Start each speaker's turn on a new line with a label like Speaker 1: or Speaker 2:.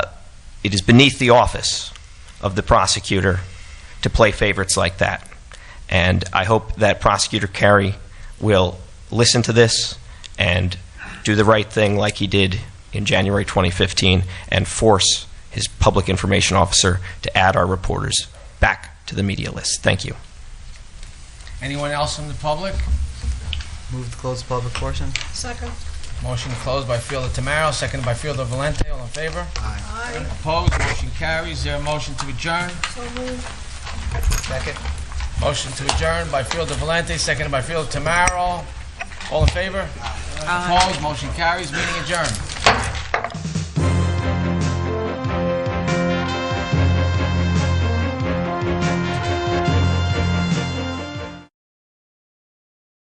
Speaker 1: it is beneath the office of the prosecutor to play favorites like that. And I hope that Prosecutor Carey will listen to this and do the right thing like he did in January 2015 and force his public information officer to add our reporters back to the media list. Thank you.
Speaker 2: Anyone else from the public?
Speaker 3: Move to close the public portion.
Speaker 4: Second.
Speaker 2: Motion closed by Fielder Tamaro, seconded by Fielder Valente. All in favor?
Speaker 4: Aye.
Speaker 2: Opposed? Motion carries. Is there a motion to adjourn?
Speaker 4: So moved.
Speaker 3: Second.
Speaker 2: Motion to adjourn by Fielder Valente, seconded by Fielder Tamaro. All in favor? Opposed? Motion carries. Meeting adjourned.